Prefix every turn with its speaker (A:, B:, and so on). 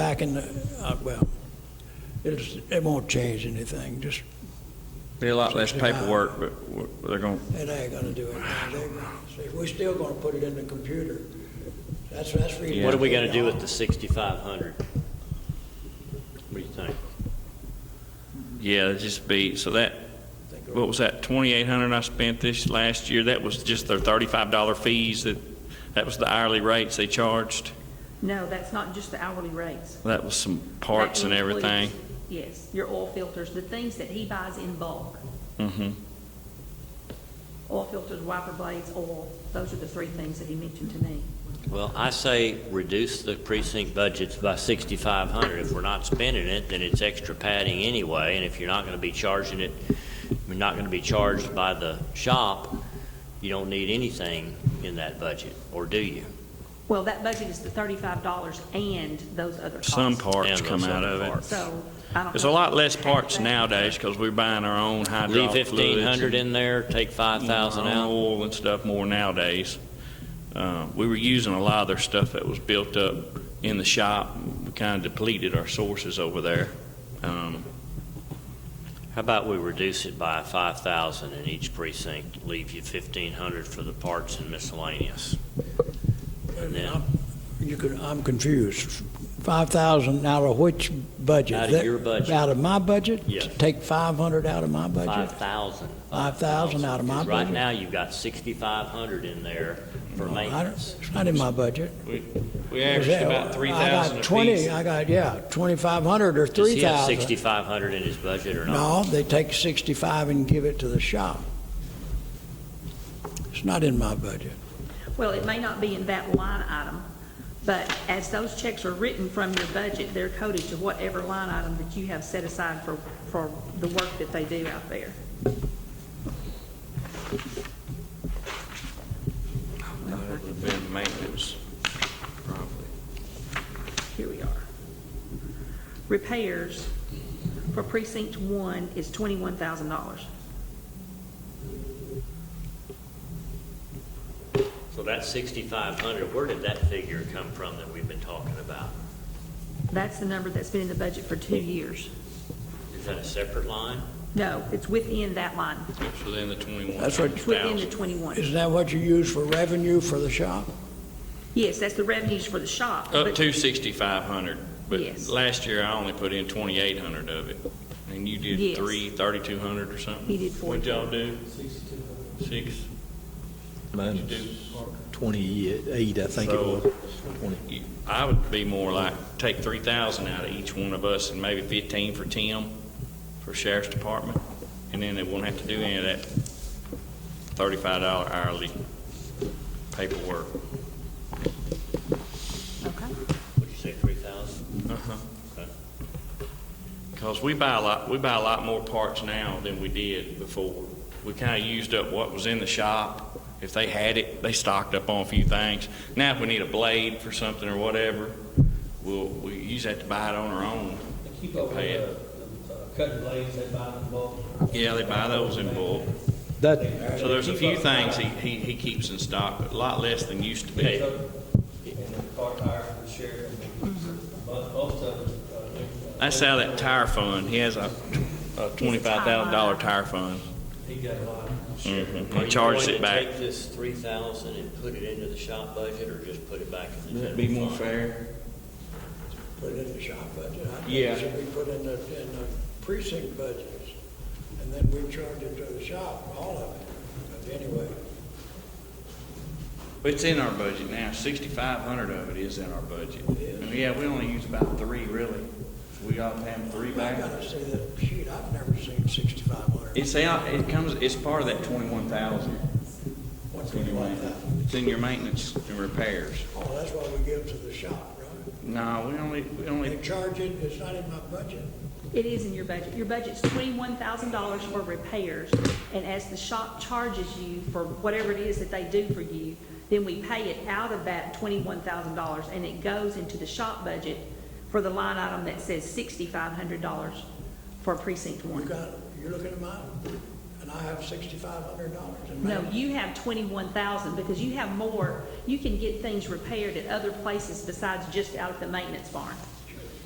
A: back in the, uh, well, it's, it won't change anything, just,
B: Be a lot less paperwork, but we're- they're going,
A: it ain't gonna do anything. They- See, we're still gonna put it in the computer. That's, that's the reason.
C: What are we gonna do with the sixty-five hundred? What do you think?
B: yeah, it'd just be, so that, what was that, 2,800 I spent this last year? That was just their $35 fees that, that was the hourly rates they charged.
D: No, that's not just the hourly rates.
B: That was some parts
D: That
B: and
D: includes-
B: everything.
D: Yes, your oil filters, the things that he buys in bulk.
B: Mm-hmm.
D: Oil filters, wiper blades, oil, those are the three things that he mentioned to me.
C: Well, I say reduce the precinct budgets by sixty-five hundred. If we're not spending it, then it's extra padding anyway, and if you're not gonna be charging it, we're not gonna be charged by the shop, you don't need anything in that budget, or do you?
D: Well, that budget is the thirty-five dollars and those other costs.
B: Some parts
C: And
B: come
C: those
B: out
C: other
B: of it.
C: parts.
D: So, uh, I don't.
B: There's a
D: know.
B: lot less parts nowadays because we're buying our own
C: Leave
B: hydraulic fluids.
C: fifteen hundred
B: and
C: in there, take five thousand
B: our own
C: out.
B: Oil and stuff more nowadays. Uh, We were using a lot of their stuff that was built up in the shop. We kind of depleted our sources over there. Um,
C: How about we reduce it by five thousand in each precinct, leave you fifteen hundred for the parts and miscellaneous? And then-
A: I'm- You could, I'm confused. Five thousand out of which budget?
C: Out of
A: That-
C: your budget.
A: Out of my budget?
C: Yes.
A: Take five hundred out of my budget?
C: Five thousand.
A: 5,000 out of my
C: Right
A: budget.
C: now, you've got sixty-five hundred in there
A: No,
C: for
A: I don't-
C: maintenance.
A: It's not in my budget.
B: We
A: Is
B: averaged
A: that-
B: about three
A: I
B: thousand
A: got
B: apiece.
A: twenty, I got, yeah, twenty-five hundred or
C: Does
A: three
C: he have
A: thousand.
C: sixty-five hundred in his budget or not?
A: No, they take 65 and give it to the shop. It's not in my budget.
D: Well, it may not be in that line item, but as those checks are written from your budget, they're coded to whatever line item that you have set aside for, for the work that they do out there.
B: That would have been maintenance, probably.
D: Here we are. Repairs for precinct one is twenty-one thousand dollars.
C: So that's sixty-five hundred. Where did that figure come from that we've been talking about?
D: That's the number that's been in the budget for two years.
C: Is that a separate line?
D: No, it's within that line.
B: So then the twenty-one.
A: That's what-
D: It's within the twenty-one.
A: Isn't that what you use for revenue for the shop?
D: Yes, that's the revenues for the shop.
B: Up
D: but-
B: to sixty-five hundred, but
D: Yes.
B: last year I only put in twenty-eight hundred of it, and you did
D: Yes.
B: three, thirty-two hundred or something?
D: He did
B: What'd y'all do? Six? What'd you do?
E: Mine's 28, I think it
B: So-
E: was. 20.
B: You- I would be more like, take three thousand out of each one of us, and maybe fifteen for Tim, for sheriff's department, and then they won't have to do any of that thirty-five dollar hourly paperwork.
D: Okay.
C: Would you say three thousand? Okay.
B: Uh-huh. Because we buy a lot, we buy a lot more parts now than we did before. We kind of used up what was in the shop. If they had it, they stocked up on a few things. Now, if we need a blade for something or whatever, we'll, we usually have to buy it on our own.
F: They keep up with
B: Pay
F: the the, uh, cutting blades, they buy them in bulk.
B: Yeah, they buy those in bulk.
E: That,
B: So there's a few things he, he, he keeps in stock, but a lot less than used to
F: Picks
B: be.
F: up And the car tires for the sheriff, and
C: Mm-hmm.
F: most, most of them. uh,
B: That's out of that tire fund. He has a, a twenty-five thousand dollar tire fund.
F: He got a lot.
B: Mhm. He charged it
C: Are you
B: back.
C: going to take this three thousand and put it into the shop budget, or just put it back in the
B: That'd
C: general?
B: be more
C: fund?
B: fair.
A: Put it in the shop budget. I think it
B: Yeah.
A: should be put in the, in the precinct budgets, and then we charge it to the shop, all of it. But anyway,
B: It's in our budget now, sixty-five hundred of it is in our budget. And Yeah, we only use about three really. We got to have three
A: I
B: back.
A: gotta say that, shoot, I've never seen 6,500.
B: It's out, it comes, it's part of that twenty-one thousand.
A: What's
B: It's in
A: in
B: your
A: one
B: maintenance-
A: thousand?
B: it's in your maintenance and repairs.
A: Oh, that's what we give to the shop, right?
B: No, we only, we
A: They
B: only,
A: charge it, it's not in my budget.
D: It is in your budget. Your budget's twenty-one thousand dollars for repairs, and as the shop charges you for whatever it is that they do for you, then we pay it out of that twenty-one thousand dollars, and it goes into the shop budget for the line item that says sixty-five hundred dollars for precinct
A: You
D: one.
A: got, you're looking at mine, and I have sixty-five hundred dollars in
D: No,
A: mine.
D: you have twenty-one thousand, because you have more, you can get things repaired at other places besides just out at the maintenance barn.